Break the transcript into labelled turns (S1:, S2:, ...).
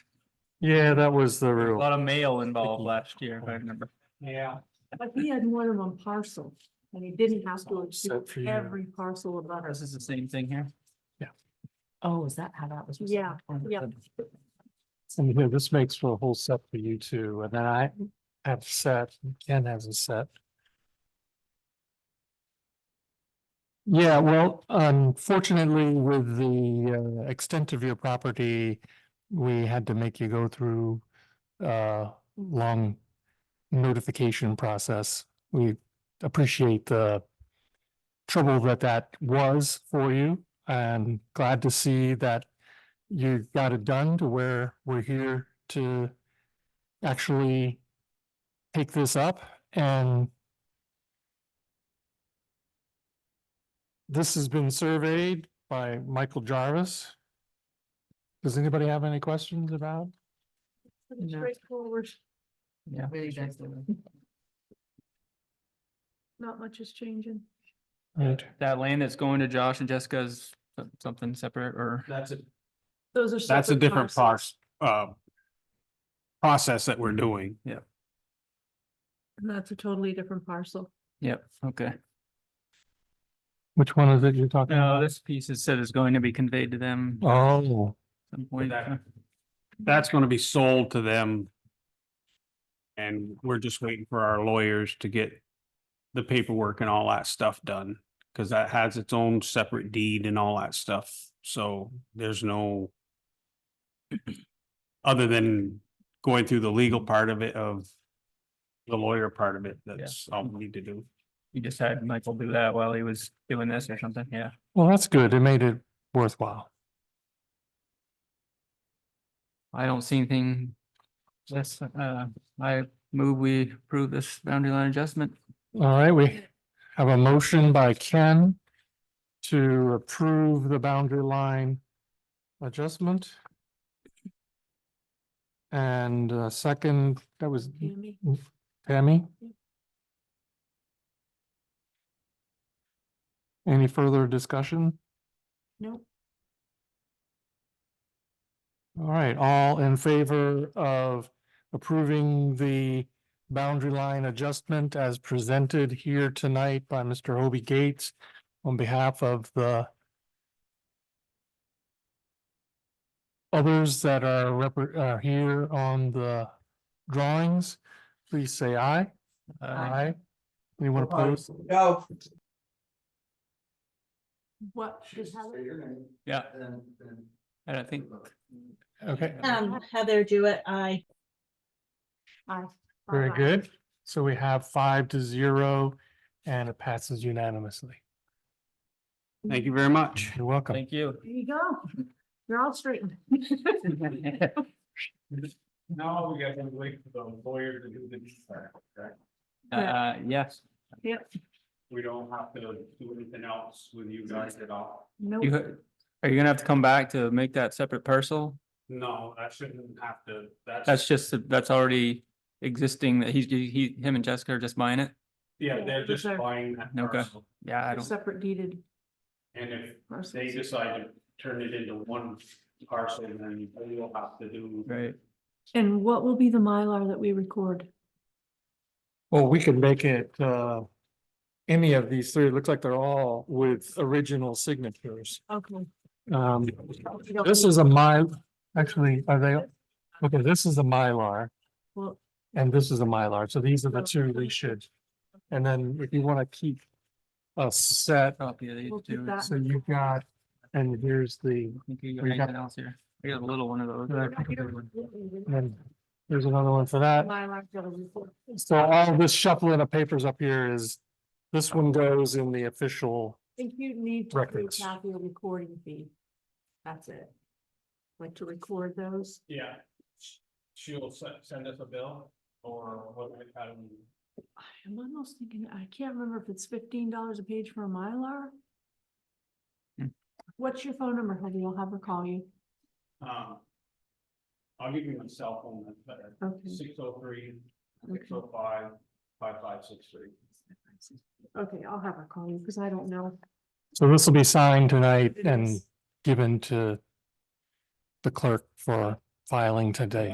S1: Yeah, that was the
S2: A
S1: rule.
S2: lot of mail involved last year, if I remember.
S3: Yeah.
S4: But he had more than one parcel and he didn't have to
S1: Except for
S4: approve
S1: you.
S4: every parcel of others.
S2: This is the same thing here.
S5: Oh, is that how that was?
S4: Yeah,
S5: resolved?
S4: yeah.
S1: And here, this makes for a whole set for you two, and then I have set, and Ken has a set. Yeah, well, unfortunately, with the uh, extent of your property, we had to make you go through uh long notification process. We appreciate the trouble that that was for you, and glad to see that you got it done to where we're here to actually take this up and this has been surveyed by Michael Jarvis. Does anybody have any questions about?
S4: Pretty
S5: No.
S4: Straightforward,
S2: Yeah.
S5: Very excellent.
S4: not much is changing.
S1: Right.
S2: That land that's going to Josh and Jessica is some- something separate or
S3: That's a,
S4: Those are.
S3: that's a
S4: separate
S3: different
S4: parcels.
S3: parse, uh, process that we're doing.
S4: And That's a totally different parcel.
S2: Yep, okay.
S1: Which one is it you're talking
S2: No,
S1: about?
S2: this piece is said is going to be conveyed to them at
S1: Oh,
S2: some point.
S3: That- That's gonna be sold to them. And we're just waiting for our lawyers to get the paperwork and all that stuff done, because that has its own separate deed and all that stuff, so there's no other than going through the legal part of it of the lawyer part of it, that's all we need to do.
S2: You just had Michael do that while he was doing this or something, yeah.
S1: well, that's good. It made it worthwhile.
S2: I don't see anything. That's, uh, I move we approve this boundary line adjustment.
S1: All right, we have a motion by Ken to approve the boundary line adjustment. And uh, second, that was
S4: Tammy,
S1: Tammy.
S4: Yep.
S1: Any further discussion?
S4: no,
S1: All right, all in favor of approving the boundary line adjustment as presented here tonight by Mr. Hobie Gates on behalf of the others that are repre- are here on the drawings, please say aye.
S2: Uh,
S1: Anyone opposed?
S6: No.
S4: what is how
S2: yeah, and I think
S1: Okay,
S7: Um, Heather Jewett, I.
S4: I.
S1: very good. So we have five to zero and it passes unanimously.
S3: Thank you very much.
S1: You're welcome.
S2: Thank you.
S4: There you go. You're all straightened.
S3: Now we gotta wait for the lawyer to do the,
S2: Uh, yes,
S3: we don't have to do anything else with you guys at all.
S4: No,
S2: you, are you gonna have to come back to make that separate parcel?
S3: No, I shouldn't have to,
S2: That's just, that's already existing, that he's, he, him and Jessica are just buying it?
S3: yeah, they're just
S4: They're-
S3: buying that
S2: Okay.
S3: parcel.
S2: Yeah, I
S4: they're
S2: don't,
S4: separate deeded
S3: And if they
S4: parcels.
S3: decide to turn it into one parcel, then you'll have to do.
S2: right,
S4: And what will be the Mylar that we record?
S1: Well, we could make it, uh, any of these three, it looks like they're all with original signatures.
S4: Okay.
S1: Um, this is a mile, actually, are they, okay, this is a Mylar
S4: Well,
S1: and this is a Mylar. So these are the two we should. And then if you want to keep a set,
S2: copy of these
S4: We'll keep
S2: two.
S4: that.
S1: so you've got, and here's the,
S2: I think you got
S1: We got-
S2: anything else here? I got a little one of those.
S1: Yeah, I
S2: right?
S1: think I got and there's another one for that.
S4: Mylar's gotta report.
S1: So all this shuffling of papers up here is, this one goes in the official
S4: I think you need to do
S1: Records.
S4: half your recording fee. That's it. Like to record those.
S3: Yeah. She'll se- send us a bill or what, how do we?
S4: I'm almost thinking, I can't remember if it's fifteen dollars a page for a Mylar.
S2: Hmm.
S4: What's your phone number, Heather? I'll have her call you.
S3: Um. I'll give you my cell phone, that's better,
S4: Okay.
S3: six oh three, six
S4: Okay,
S3: oh five, five five six three.
S4: Okay, I'll have her call you because I don't know.
S1: So this will be signed tonight
S4: It
S1: and
S4: is.
S1: given to the clerk for filing today.